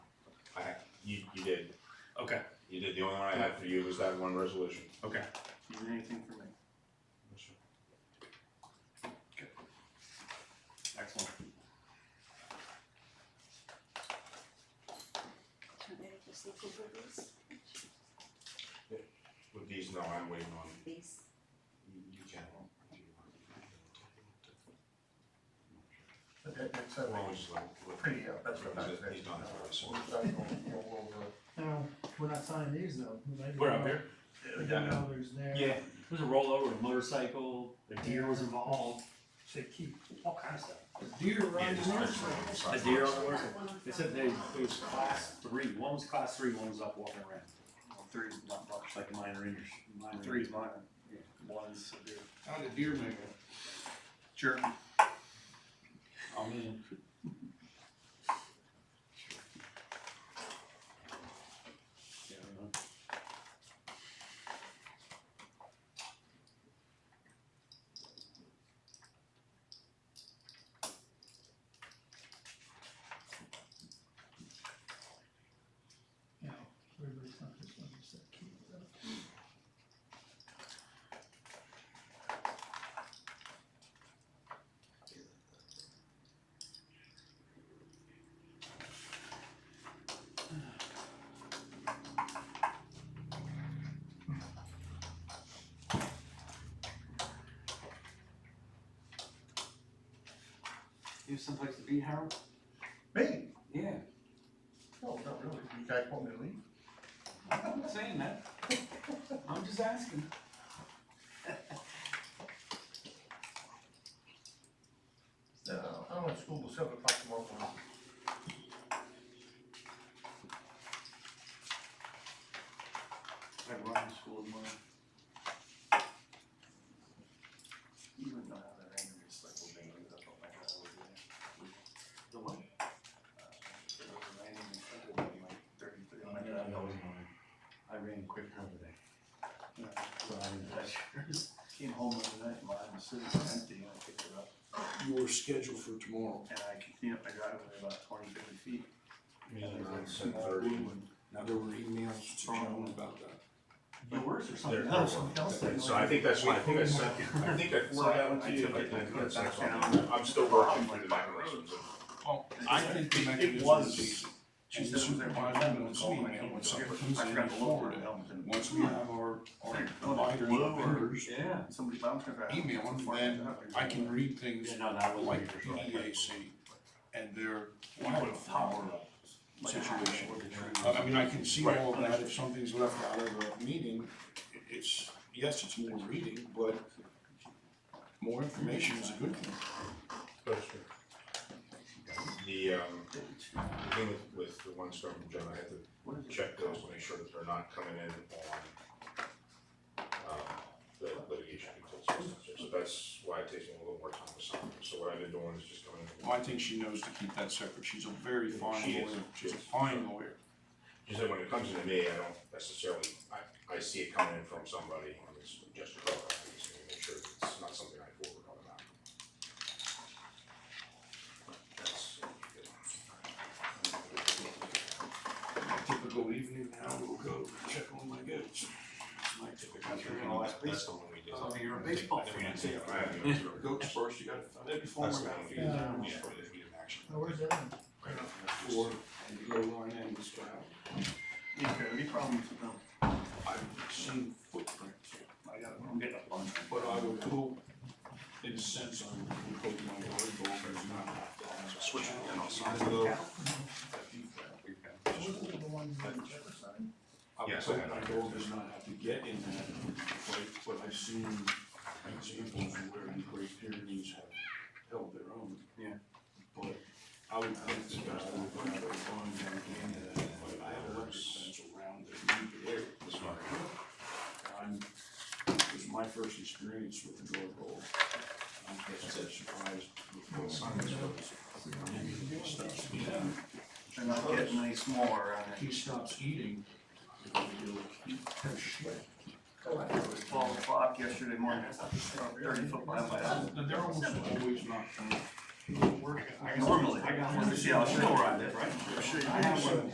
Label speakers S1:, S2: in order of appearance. S1: you, you did,
S2: Okay,
S1: you did, the only one I had for you was that one resolution.
S2: okay. Do you need anything from me? Excellent.
S3: Can I just look over these?
S1: With these, no, I'm waiting on,
S3: These.
S1: you you can.
S4: But that- that's
S1: Well,
S4: a
S1: it's like- what-
S4: pretty, uh, that's what I was.
S1: He's he's done it for us.
S5: Now, we're not signing these though. We might-
S2: We're up here.
S5: We don't know there's there.
S2: Yeah, there's a rollover, a motorcycle, a deer was involved. They keep all kinds of stuff.
S5: Deer
S1: Yeah,
S5: riding
S1: just
S5: horses.
S1: fix it.
S2: A deer on the motorcycle. They said they, it was class three, one was class three, one was up walking around. Well, three's not much like minor injuries. Minor Three's minor, yeah, one's a deer.
S6: How did deer make it?
S2: Sure. I mean. Yeah, I don't know.
S5: You know, everybody's not just one, just that key, so.
S6: You have someplace to be, Harold?
S4: Me?
S6: Yeah,
S4: No, not really. You guys want me to leave?
S6: I'm not saying that. I'm just asking.
S4: No, I'm at school till seven o'clock tomorrow morning.
S2: I run to school tomorrow.
S4: You wouldn't know how that anger is like when they leave. I thought my dad was there.
S2: The what?
S4: Uh, there was an anger in Central Valley, like, 30, 30, my dad always
S2: I ran quick over there. Well, I didn't touch yours.
S4: Came home the night, my arm was sitting empty and I picked it up.
S7: You were scheduled for tomorrow.
S4: And I continued up my driveway about 20, 50 feet.
S1: Yeah,
S4: And there
S1: around
S4: was a small
S1: 7:30.
S4: blue one.
S7: Now, there were emails to John about that.
S2: But worse or
S1: There-
S2: something else,
S1: there
S2: something else.
S1: were.
S2: they-
S1: So I think that's why, I think I sent, I think I
S4: So I
S1: forwarded that one to you.
S4: took it,
S1: but I
S4: I put it back
S1: think
S4: down.
S1: that's- I'm still working through the mechanisms.
S4: Well,
S7: I think the
S4: It
S7: mechanism
S4: was.
S7: is, she's the
S4: I
S7: supervisor, it's me, and when something
S4: I forgot to lower it,
S7: forwarded,
S4: helmet and.
S7: once we have our, our providers and vendors
S2: Yeah.
S4: Somebody bounced it out.
S7: email, and then I can read things
S2: Yeah, no, that was
S7: like
S2: like.
S7: the EDAC and their wildflower situation. I I mean, I can see all of that, if something's left out of a meeting, i- it's, yes, it's more reading, but more information is a good thing.
S1: The, um, the thing with, with the one storm from John, I had to check those, to make sure that they're not coming in on, um, the litigation consultants. So that's why it takes me a little more time to sign. So what I've been doing is just coming in.
S7: Well, I think she knows to keep that separate, she's a very fine
S1: She is.
S7: lawyer, she's a fine lawyer.
S1: She said when it comes to me, I don't necessarily, I, I see it coming in from somebody and it's just a cover. I just need to make sure that it's not something I forward on about. That's.
S7: Typical evening now, we'll go check on my goats. My typical.
S2: You're gonna watch
S1: That's the one we did.
S2: Oh, you're a baseball
S1: I
S2: fan.
S1: think I have the answer.
S7: Goats first, you gotta, find it before
S1: That's the
S7: we're
S1: one we did.
S5: Yeah.
S1: Yeah, we did action.
S5: Now, Oh, where's that? one?
S1: Right on.
S7: Four, and you go line and this guy,
S4: Yeah, any problems with them?
S7: I've seen footprints,
S4: I got, I'm getting a bunch.
S7: but I would hope, in a sense, I would hope my yard dog does not have to have a
S1: Switch
S7: switch.
S1: it again, I'll sign it though.
S5: Those are the ones that you never signed.
S7: I would
S1: Yes, I
S7: hope
S1: have
S7: my
S1: it.
S7: dog does not have to get in that fight, but I've seen examples where the Great Pyrenees have held their own.
S2: Yeah.
S7: But I would think the best would be to go on down again, but I have electric fence around it, either way.
S1: This one.
S7: I'm, it was my first experience with the dog bowl. I'm just that surprised with what science was. Stops eating,
S4: They're not getting any smaller on it.
S7: he stops eating.
S4: Twelve o'clock yesterday morning, I thought, thirty foot behind my house.
S7: But They're almost always nocturnal.
S4: Normally,
S2: I got
S4: I
S2: one.
S4: see, I'll still ride it, right?
S7: Sure,
S2: I have one.